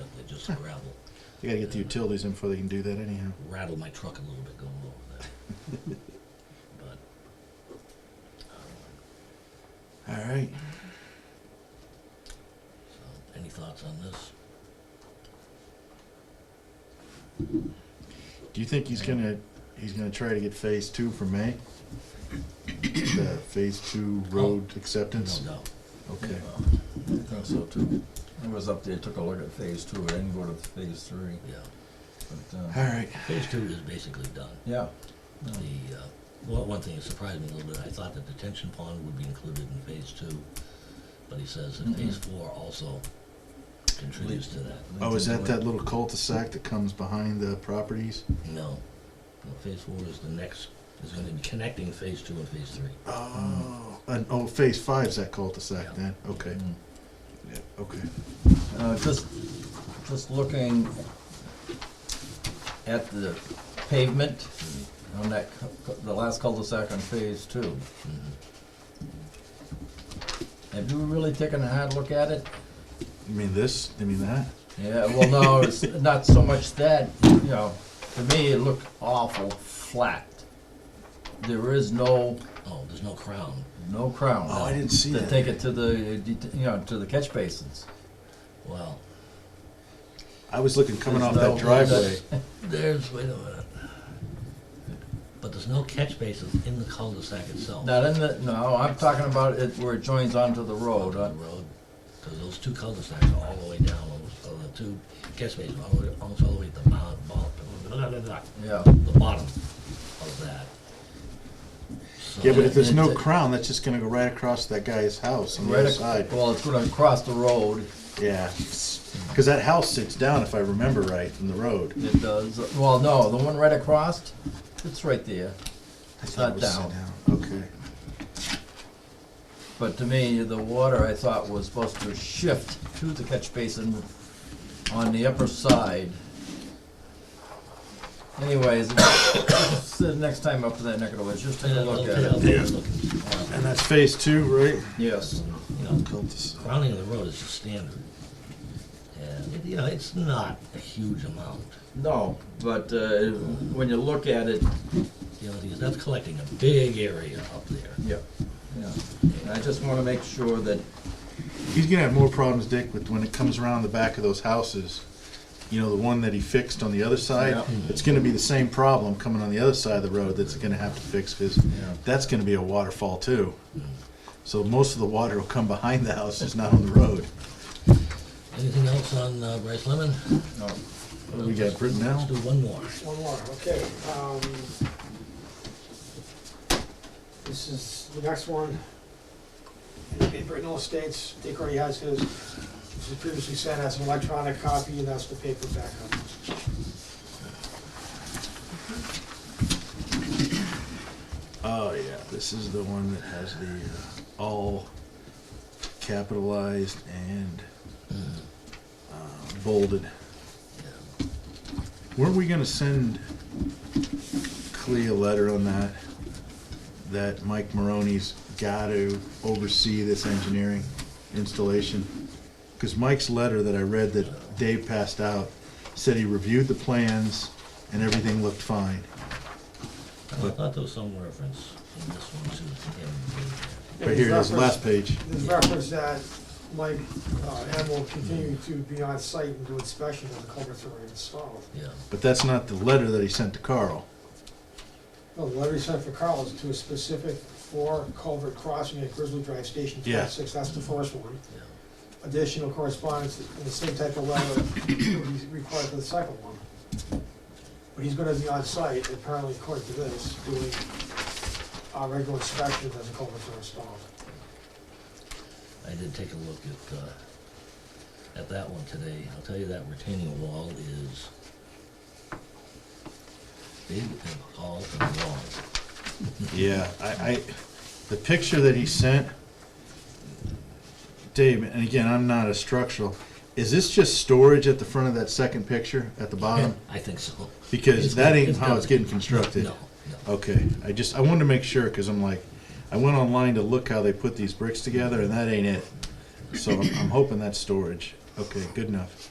up there, just gravel. They gotta get the utilities in before they can do that anyhow. rattle my truck a little bit going over that. but um, All right. so, any thoughts on this? Do you think he's gonna, he's gonna try to get phase two for May? The phase two road acceptance? No, no. Okay. I think so too. I was up there, took a look at phase two, I didn't go to phase three, Yeah. but, uh, All right. Phase two is basically done. yeah. No. The uh, well, one thing that surprised me a little bit, I thought the detention pond would be included in phase two, but he says that phase four also contributes to that. Oh, is that that little cul-de-sac that comes behind the properties? No. no, phase four is the next. Is going to be connecting phase two and phase three. Oh, and, oh, phase five's that cul-de-sac then? Okay. Mm. Yeah, okay. Uh, just, just looking at the pavement on that, cu- cu- the last cul-de-sac on phase two. Have you really taken a hard look at it? You mean this? You mean that? Yeah, well, no, it's not so much that, you know, to me, it looked awful flat. There is no, Oh, there's no crown. no crown. Oh, I didn't see To that. take it to the, uh, det- you know, to the catch basins. Well, I was looking coming off There's that no- driveway. There's, wait a minute. But there's no catch bases in the cul-de-sac itself. Not in the, no, I'm talking about it where it joins onto the road, On uh, the road, because those two cul-de-sacs are all the way down, almost- or the two catch bases, all the way, almost all the way at the bottom, yeah. the bottom of that. So- Yeah, but if there's no It's a- crown, that's just gonna go right across that guy's house on the Right, other ac- side. well, it's gonna cross the road, Yeah, because that house sits down, if I remember right, from the road. it does, well, no, the one right across, it's right there. It's not down, Okay. but to me, the water, I thought, was supposed to shift to the catch basin on the upper side. Anyways, the next time up to that neck of the woods, just take a Yeah, look okay, at it. okay, looking, And that's phase two, right? Yes, You know, Cul-de-sac. crowning of the road is the standard. And, it- you know, it's not a huge amount. no, but, uh, when you look at it, The other thing is, that's collecting a big area up there. Yeah, yeah. And I just want to make sure that, He's gonna have more problems, Dick, with when it comes around the back of those houses. You know, the one that he fixed on the other side, Yeah. it's gonna be the same problem coming on the other side of the road that's gonna have to fix, because that's gonna be a waterfall too. So most of the water will come behind the houses, not on the road. Anything else on uh, Bryce Lemon? no, What do we got, Britton Let's now? do one more. One more, okay. um, This is the next one. In Brittenell Estates, Dick already has his, this was previously sent as an electronic copy, and that's the paperback of it. Oh, yeah, this is the one that has the uh, all capitalized and uh, bolded. Weren't we gonna send Clea a letter on that? That Mike Maroney's gotta oversee this engineering installation? Cause Mike's letter that I read that Dave passed out said he reviewed the plans and everything looked fine. I thought there was some reference in this one to him. Right here, that's the last page. There's reference that Mike uh, M will continue to be on site and do inspection of the culverts that are installed. being there. But that's not the letter that he sent to Carl. No, the letter he sent for Carl is to a specific four culvert crossing at Grizzly Drive Station Yeah. twenty-six, that's the first one. Yeah, yeah. additional correspondence in the same type of letter he's required for the second one. But he's gonna be on site, apparently according to this, doing our regular inspection as a culvert are installed. I did take a look at, uh, at that one today. I'll tell you that retaining wall is big and tall and long. Yeah, I, I, the picture that he sent, Dave, and again, I'm not a structural, is this just storage at the front of that second picture at the bottom? I think so. Because It's that got- ain't it's how got- it's getting constructed. No, no. Okay, I just, I wanted to make sure, cause I'm like, I went online to look how they put these bricks together and that ain't it. So I'm I'm hoping that's storage. Okay, good enough.